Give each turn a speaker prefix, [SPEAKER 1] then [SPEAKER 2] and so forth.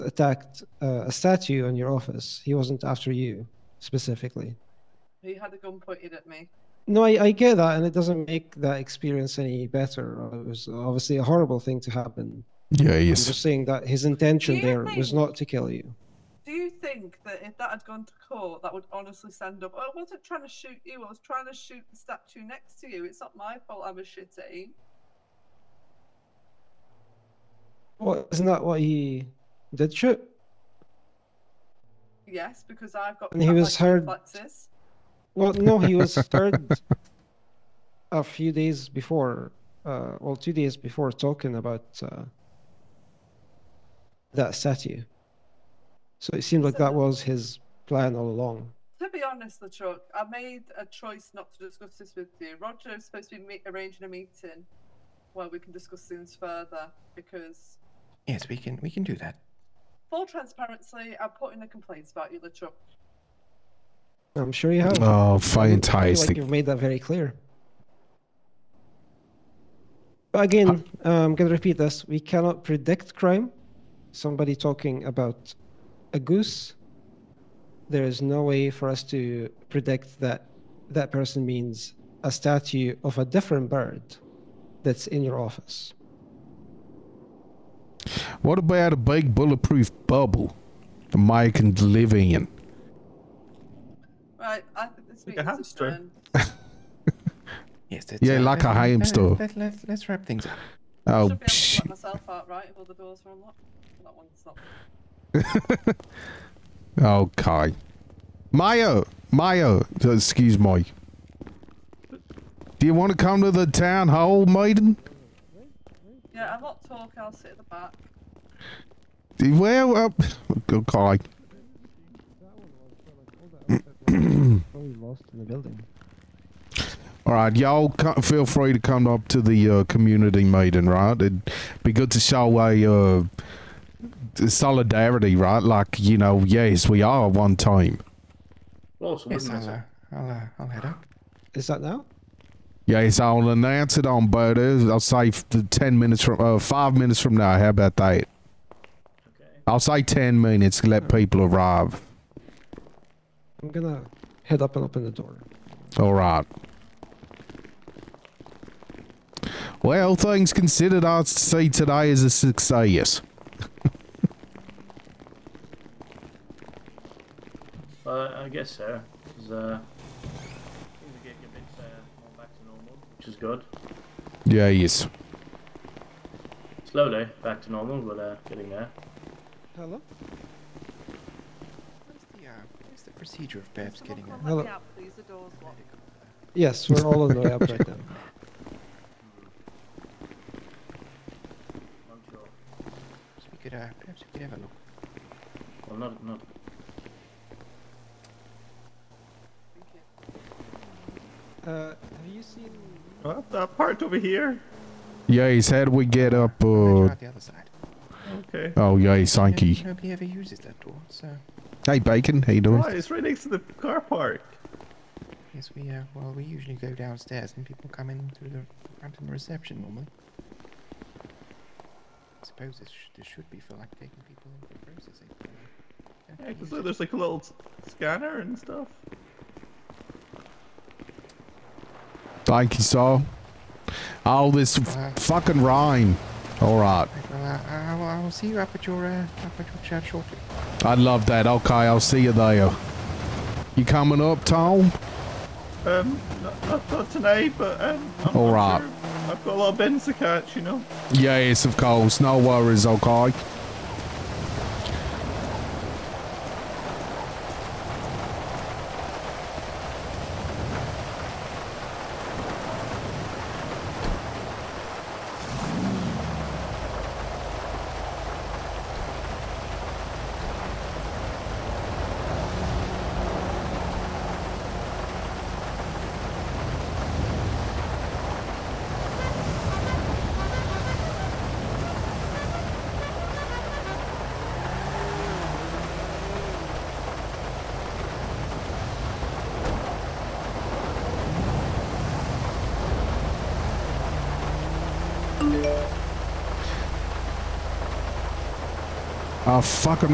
[SPEAKER 1] attacked uh, a statue in your office. He wasn't after you specifically.
[SPEAKER 2] He had a gun pointed at me.
[SPEAKER 1] No, I, I get that, and it doesn't make that experience any better. It was obviously a horrible thing to happen.
[SPEAKER 3] Yeah,
[SPEAKER 1] I'm just saying that his intention
[SPEAKER 2] Do you
[SPEAKER 1] there was
[SPEAKER 2] think-
[SPEAKER 1] not to kill you.
[SPEAKER 2] Do you think that if that had gone to court, that would honestly stand up? Oh, I wasn't trying to shoot you. I was trying to shoot the statue next to you. It's not my fault. I'm a shitty.
[SPEAKER 1] What isn't that what he did shoot?
[SPEAKER 2] Yes, because I've got.
[SPEAKER 1] And he
[SPEAKER 2] cat-like
[SPEAKER 1] was heard-
[SPEAKER 2] reflexes.
[SPEAKER 1] Well, no, he was heard a few days before, uh, well, two days before, talking about uh, that statue. So it seemed like that was his plan all along.
[SPEAKER 2] To be honest, Luchuk, I made a choice not to discuss this with you. Roger is supposed to be me- arranging a meeting where we can discuss things further because,
[SPEAKER 3] Yes, we can we can do that.
[SPEAKER 2] full transparency, I put in a complaint about you, Luchuk.
[SPEAKER 1] I'm sure you have.
[SPEAKER 3] Oh,
[SPEAKER 1] I feel like
[SPEAKER 3] fantastic.
[SPEAKER 1] you've made that very clear. But again, I'm going to repeat this. We cannot predict crime. Somebody talking about a goose, there is no way for us to predict that that person means a statue of a different bird that's in your office.
[SPEAKER 3] What about a big bulletproof bubble that Mike can live in?
[SPEAKER 2] Right, I think this
[SPEAKER 4] Like a
[SPEAKER 2] meeting's
[SPEAKER 4] hamster.
[SPEAKER 2] adjourned.
[SPEAKER 5] Yes, that's
[SPEAKER 3] Yeah, like a
[SPEAKER 5] let- let-
[SPEAKER 3] hamster.
[SPEAKER 5] uh, Let, let, let's wrap things up.
[SPEAKER 2] Should be able
[SPEAKER 3] Oh,
[SPEAKER 2] to
[SPEAKER 3] psh.
[SPEAKER 2] let myself out, right? If all the doors are unlocked. That one's not.
[SPEAKER 3] okay. Mayo, Mayo, excuse me. Do you want to come to the town hall meeting?
[SPEAKER 2] Yeah, I'm not talk. I'll sit at the back.
[SPEAKER 3] Well, uh, okay.
[SPEAKER 1] Probably Oh, lost in the building.
[SPEAKER 3] All right, y'all co- feel free to come up to the uh, community meeting, right? It'd be good to show a uh, t- solidarity, right? Like, you know, yes, we are one team.
[SPEAKER 4] Well, so
[SPEAKER 5] Yes,
[SPEAKER 4] wouldn't
[SPEAKER 5] I'll,
[SPEAKER 4] it?
[SPEAKER 5] uh, I'll, uh, I'll head up.
[SPEAKER 1] Is that now?
[SPEAKER 3] Yes, I'll announce it on Butters. I'll say f- the 10 minutes from, uh, 5 minutes from now. How about that?
[SPEAKER 4] Okay.
[SPEAKER 3] I'll say 10 minutes, let people arrive.
[SPEAKER 1] I'm going to head up and open the door.
[SPEAKER 3] All right. Well, things considered, I'd say today is a success.
[SPEAKER 4] Uh, I guess so. 'cause, uh, things are getting a bit uh, more back to normal, which is good.
[SPEAKER 3] Yes.
[SPEAKER 4] Slowly back to normal, but uh, getting there.
[SPEAKER 1] Hello?
[SPEAKER 5] What's the, uh, what's the procedure of perhaps
[SPEAKER 2] Someone
[SPEAKER 5] getting
[SPEAKER 2] come
[SPEAKER 5] a
[SPEAKER 2] and
[SPEAKER 1] Hello.
[SPEAKER 2] Let me out, please. The door's locked.
[SPEAKER 1] Yes, we're all on the way up right now.
[SPEAKER 4] I'm sure.
[SPEAKER 5] Perhaps we could, uh, perhaps we could have a look.
[SPEAKER 4] Well, not not.
[SPEAKER 2] Thank you.
[SPEAKER 1] Uh, have you seen?
[SPEAKER 4] What that part over here?
[SPEAKER 3] Yes, how do we get up?
[SPEAKER 5] I'll
[SPEAKER 3] Uh,
[SPEAKER 5] try out the other side.
[SPEAKER 4] Okay.
[SPEAKER 3] Oh yeah,
[SPEAKER 5] No-
[SPEAKER 3] thank you.
[SPEAKER 5] Nobody ever uses that door, so
[SPEAKER 3] Hey Bacon, how you
[SPEAKER 6] Oh,
[SPEAKER 3] doing?
[SPEAKER 4] it's right next to the car park.
[SPEAKER 5] yes, we uh, well, we usually go downstairs and people come in through the front and reception normally. I suppose this, sh- this should be for like taking people in for processing. Don't
[SPEAKER 6] Yeah,
[SPEAKER 5] they
[SPEAKER 6] because
[SPEAKER 5] use
[SPEAKER 6] look,
[SPEAKER 5] it?
[SPEAKER 6] there's like a little s- scanner and stuff.
[SPEAKER 3] Thank you, sir. Oh, this
[SPEAKER 5] Uh,
[SPEAKER 3] f- fucking rhyme. All right,
[SPEAKER 5] Right, well, uh, I, I, will, I will see you up at your uh, up at your church shortly.
[SPEAKER 3] I love that. Okay, I'll see you there. You coming up, Tom?
[SPEAKER 6] Um, not, not, not tonight, but um, I'm,
[SPEAKER 3] All
[SPEAKER 6] I'm
[SPEAKER 3] right.
[SPEAKER 6] sure I've got a lot of bins to catch, you know.
[SPEAKER 3] Yes, of course. No worries. Okay. Oh, fuck, I'm